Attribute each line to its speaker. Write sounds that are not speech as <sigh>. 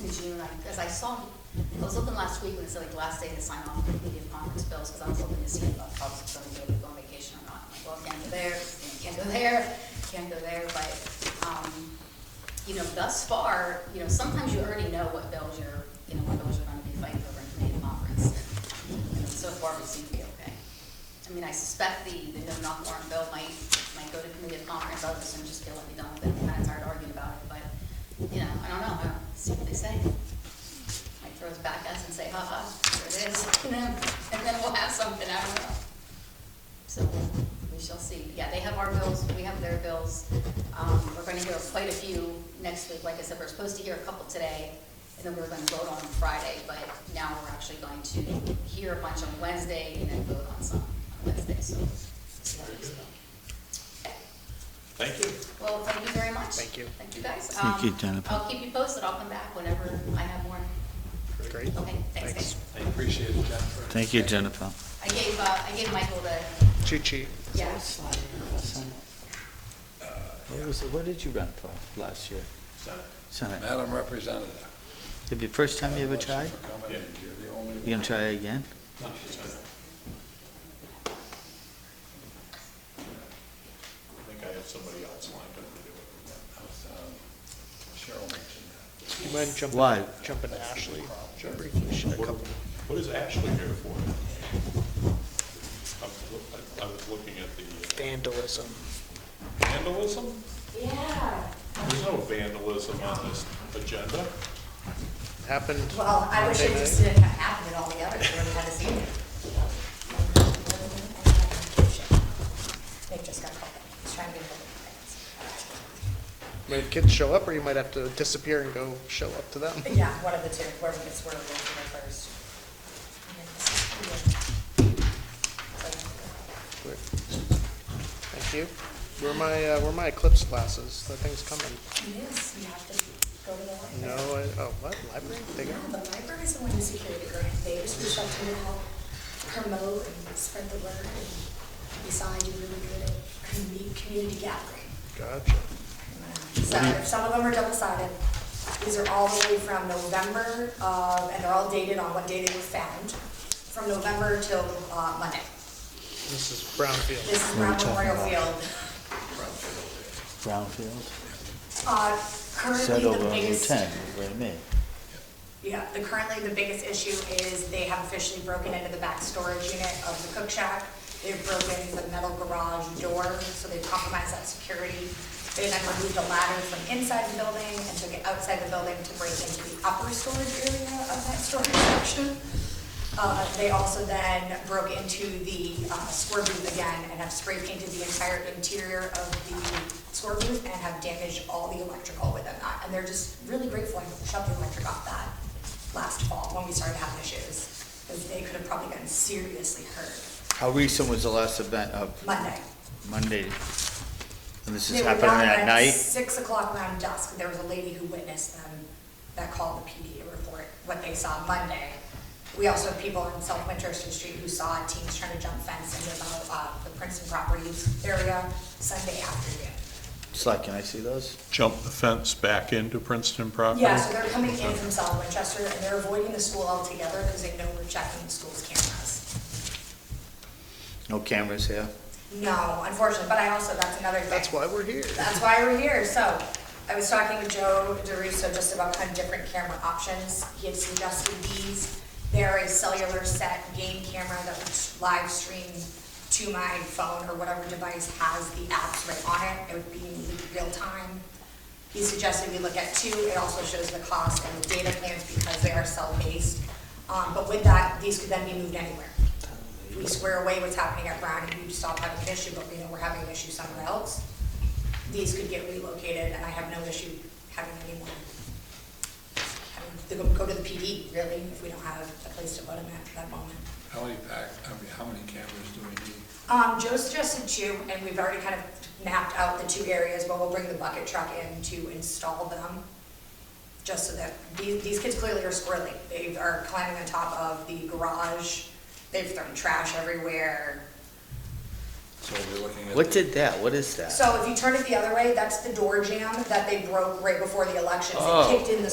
Speaker 1: June, and I, because I saw, I was looking last week when it said like last day to sign off the media conference bills, because I was hoping to see if I was going to go on vacation or not. I'm like, Well, can't go there, can't go there, can't go there, but, um, you know, thus far, you know, sometimes you already know what bills you're, you know, what bills you're gonna be fighting over in committee conference. And So far, we seem to be okay. I mean, I suspect the, the no knock warrant bill might, might go to committee of conference, I'll just, just get let me done with it, I'm kinda tired of arguing about it, but, you know, I don't know, I don't see what they say. Might throw it back at us and say, ha ha, here it is, <laughs> and then, and then we'll have something, I don't know. So we shall see. Yeah, they have our bills, we have their bills. Um, We're going to hear quite a few next week. Like I said, we're supposed to hear a couple today, and then we we're going to vote on them Friday, but now we're actually going to hear a bunch on Wednesday and then vote on some on Wednesday, so. so that is good. Okay.
Speaker 2: Thank you.
Speaker 1: Well, thank you very much.
Speaker 3: Thank you.
Speaker 1: Thank you, guys.
Speaker 4: Thank
Speaker 1: Um,
Speaker 4: you, Jennifer.
Speaker 1: I'll keep you posted. I'll come back whenever I have more.
Speaker 3: Great.
Speaker 1: Okay, thanks, guys.
Speaker 2: I appreciate it, Jennifer.
Speaker 4: Thank you, Jennifer.
Speaker 1: I gave, uh, I gave Michael the,
Speaker 3: Cheat sheet.
Speaker 1: yeah,
Speaker 4: What was, what did you run for last year?
Speaker 2: Senate.
Speaker 4: Senate.
Speaker 5: Madam Representative.
Speaker 4: Did your first time you ever tried?
Speaker 5: for coming. You're the only
Speaker 4: You gonna try again?
Speaker 2: I think I have somebody else lined up to do it. Um,
Speaker 5: Cheryl mentioned that.
Speaker 3: You mind jumping?
Speaker 4: Why?
Speaker 3: Jumping to Ashley. Briefly, she had a
Speaker 2: What-
Speaker 3: couple-
Speaker 2: What is Ashley here for? I was loo- I- I was looking at the
Speaker 3: Vandalism.
Speaker 2: vandalism?
Speaker 1: yeah.
Speaker 2: There's no vandalism on this agenda.
Speaker 3: Happened.
Speaker 1: Well, I wish it
Speaker 3: Monday
Speaker 1: just
Speaker 3: night.
Speaker 1: didn't have happened at all the others, where we had to see it. They just got called, Just trying to get rid
Speaker 3: I mean, kids show up, or you might have to disappear and go show up to them.
Speaker 1: of it. Yeah, one of the two, whoever gets word of it first.
Speaker 3: Great. Thank you. Where are my, uh, where are my eclipse glasses? That thing's coming.
Speaker 1: Yes, you have to go to the library.
Speaker 3: No, I, oh, what, library? They got-
Speaker 6: The library is the one who secured it, right? They just reached out to me to help promote and spread the word. And Besides, you're really good at commu- community gathering.
Speaker 3: Gotcha.
Speaker 6: So if some of them are double-sided. These are all the way from November, uh, and they're all dated on what day they were found, from November till uh, Monday.
Speaker 3: This is Brownfield.
Speaker 6: This is Brown
Speaker 4: What are you
Speaker 6: Memorial
Speaker 4: talking
Speaker 6: Field.
Speaker 4: Brownfield?
Speaker 6: Uh,
Speaker 4: Said
Speaker 6: Currently,
Speaker 4: over
Speaker 6: the
Speaker 4: on the
Speaker 6: biggest,
Speaker 4: ten, what do you mean?
Speaker 6: yeah, the- currently the biggest issue is they have officially broken into the back storage unit of the cook shack. They've broken the metal garage door, so they've compromised that security. They then removed a ladder from inside the building and took it outside the building to break into the upper storage area of that storage section. Uh, They also then broke into the uh, score booth again and have spray painted the entire interior of the score booth and have damaged all the electrical within that. And they're just really grateful I shut the electric off that last fall when we started having issues, because they could have probably gotten seriously hurt
Speaker 4: How recent was the last event of
Speaker 6: Monday.
Speaker 4: Monday? And this is
Speaker 6: They were
Speaker 4: happening
Speaker 6: down
Speaker 4: at night?
Speaker 6: Six o'clock around dusk, there was a lady who witnessed them that called the PD to report what they saw Monday. We also have people on South Winchester Street who saw teens trying to jump fence in the, uh, the Princeton properties area Sunday afternoon.
Speaker 4: Sly, can I see those?
Speaker 2: Jump the fence back into Princeton property?
Speaker 6: Yeah, so they're coming in from South Winchester and they're avoiding the school altogether because they know we're checking the school's cameras.
Speaker 4: No cameras here?
Speaker 6: No, unfortunately, but I also, that's another thing.
Speaker 3: That's why we're here.
Speaker 6: That's why we're here, so, I was talking with Joe DeRusso just about kind of different camera options, he had suggested these. They're a cellular set game camera that would live stream to my phone or whatever device has the apps right on it, it would be in real time. He suggested we look at two, it also shows the cost and the data plans because they are cell-based. Um, but with that, these could then be moved anywhere we square away what's happening at Brown and we stop having an issue, but we know we're having an issue somewhere else, these could get relocated, and I have no issue having anyone, having to go- go to the PD, really, if we don't have a place to put them at that moment.
Speaker 5: How many pack, I mean, how many cameras do we need?
Speaker 6: Um, Joe suggested two, and we've already kind of mapped out the two areas, but we'll bring the bucket truck in to install them. Just so that, these, these kids clearly are squirreling, they are climbing on top of the garage, they've thrown trash everywhere,
Speaker 5: So we're looking at.
Speaker 4: What did that? What is that?
Speaker 6: So if you turn it the other way, that's the door jamb that they broke right before the elections. They
Speaker 4: Oh.
Speaker 6: kicked in the